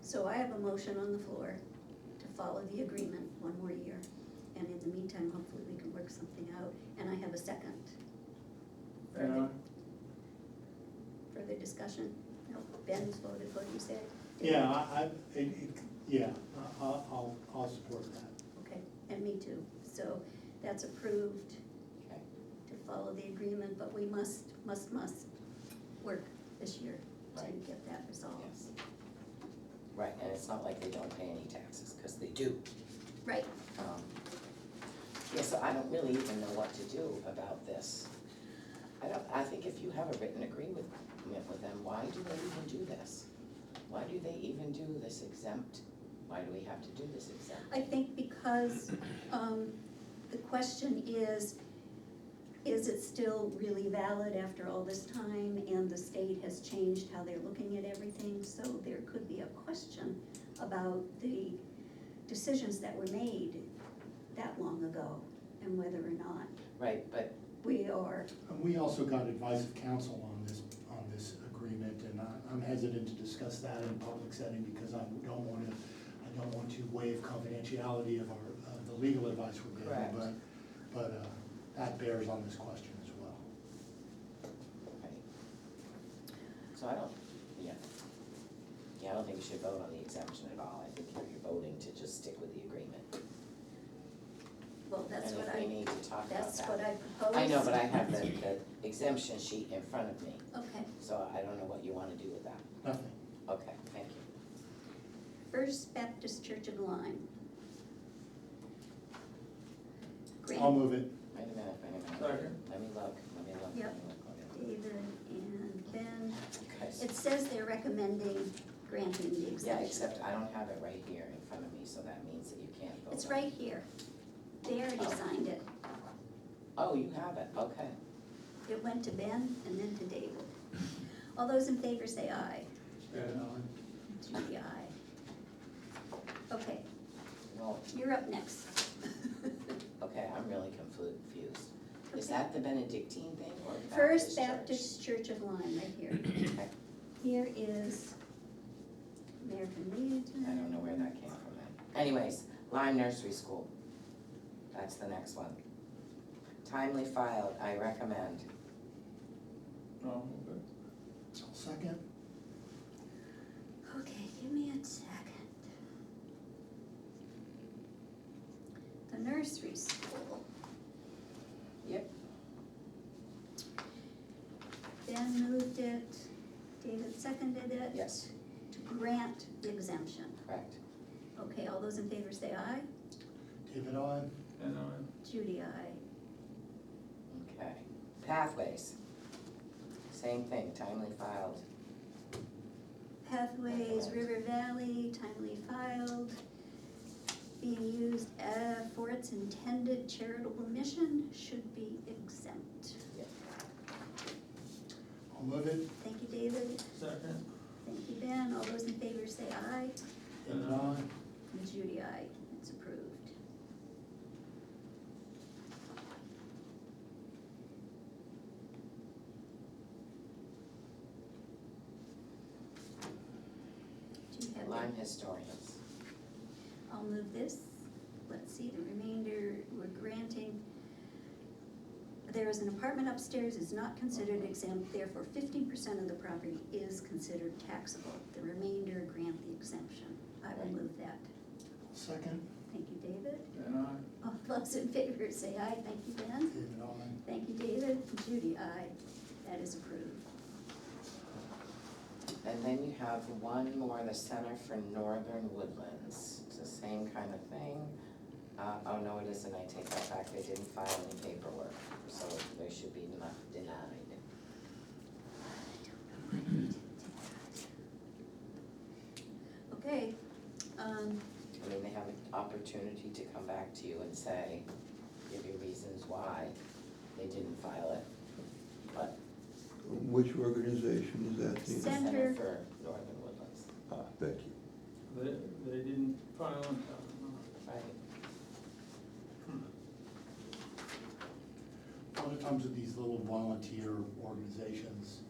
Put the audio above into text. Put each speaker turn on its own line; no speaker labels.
So I have a motion on the floor to follow the agreement one more year. And in the meantime, hopefully we can work something out. And I have a second.
Uh,
Further, further discussion? No, Ben's voted what you said?
Yeah, I, I, it, it- yeah, I- I'll, I'll, I'll support that.
Okay, and me too. So that's approved
Okay.
to follow the agreement, but we must, must, must work this year to
Right.
get that resolved.
Yes. Right, and it's not like they don't pay any taxes, because they do.
Right,
Um, Yeah, so I don't really even know what to do about this. I don't, I think if you have a written agreement with them, why do they even do this? Why do they even do this exempt? Why do we have to do this exempt?
I think because, um, the question is, is it still really valid after all this time? And the state has changed how they're looking at everything, so there could be a question about the decisions that were made that long ago and whether or not
Right, but,
we are,
And we also got advice of counsel on this, on this agreement, and I- I'm hesitant to discuss that in a public setting because I don't wanna, I don't want to waive confidentiality of our, of the legal advice we're
Correct.
giving, but, but, uh, that bears on this question as well.
right. So I don't, yeah. Yeah, I don't think you should vote on the exemption at all. I think you're- you're voting to just stick with the agreement.
well, that's what I,
And if we need to talk about that.
that's what I proposed.
I know, but I have the, the exemption sheet in front of me,
Okay,
so I don't know what you wanna do with that.
Nothing.
Okay, thank you.
First Baptist Church of Lyme. Grant
I'll move it.
Wait a minute, wait a minute.
Second.
Let me look, let me look, let me
Yep.
look, let me look.
David and Ben,
You guys,
it says they're recommending granting the
yeah,
exemption.
except I don't have it right here in front of me, so that means that you can't vote.
It's
on it.
right here. They already signed it.
Oh, you have it, okay.
It went to Ben and then to David. All those in favor say aye.
And
To the aye. Okay,
Well,
you're up next.
okay, I'm really confused. Is that the Benedictine thing or Baptist Church?
First Baptist Church of Lyme, right here.
Okay,
Here is American Legion.
I don't know where that came from then. Anyways, Lyme Nursery School. That's the next one. Timely filed, I recommend.
I'll move it.
I'll second.
Okay, give me a second. The nursery school.
Yep.
Ben moved it, David seconded it.
Yes,
To grant the exemption.
correct.
Okay, all those in favor say aye.
David, I.
And I,
Judy, aye.
Okay. Pathways. Same thing, timely filed.
Pathways, River Valley, timely filed, being used uh, for its intended charitable mission, should be exempt.
I'll move it.
Thank you, David.
second,
Thank you, Ben. All those in favor say aye.
David, I.
And Judy, aye. It's approved. Do you have that?
Lyme historians.
I'll move this. Let's see, the remainder, we're granting. There is an apartment upstairs, is not considered exempt, therefore fifteen percent of the property is considered taxable. The remainder grant the exemption. I will
Right.
move that.
Second.
Thank you, David.
and I,
All those in favor say aye. Thank you, Ben.
David, I.
Thank you, David. Judy, aye. That is approved.
And then you have one more, the Center for Northern Woodlands. It's the same kind of thing. Uh, oh, no, it isn't. I take that back. They didn't file any paperwork, so they should be not denied.
Okay, um,
I mean, they have an opportunity to come back to you and say, give you reasons why they didn't file it. But
Which organization is that? Tina?
Sen- Center-
Center for Northern Woodlands,
Ah, thank you.
they, they didn't file on time.
right?
Hmm.
A lot of times with these little volunteer organizations,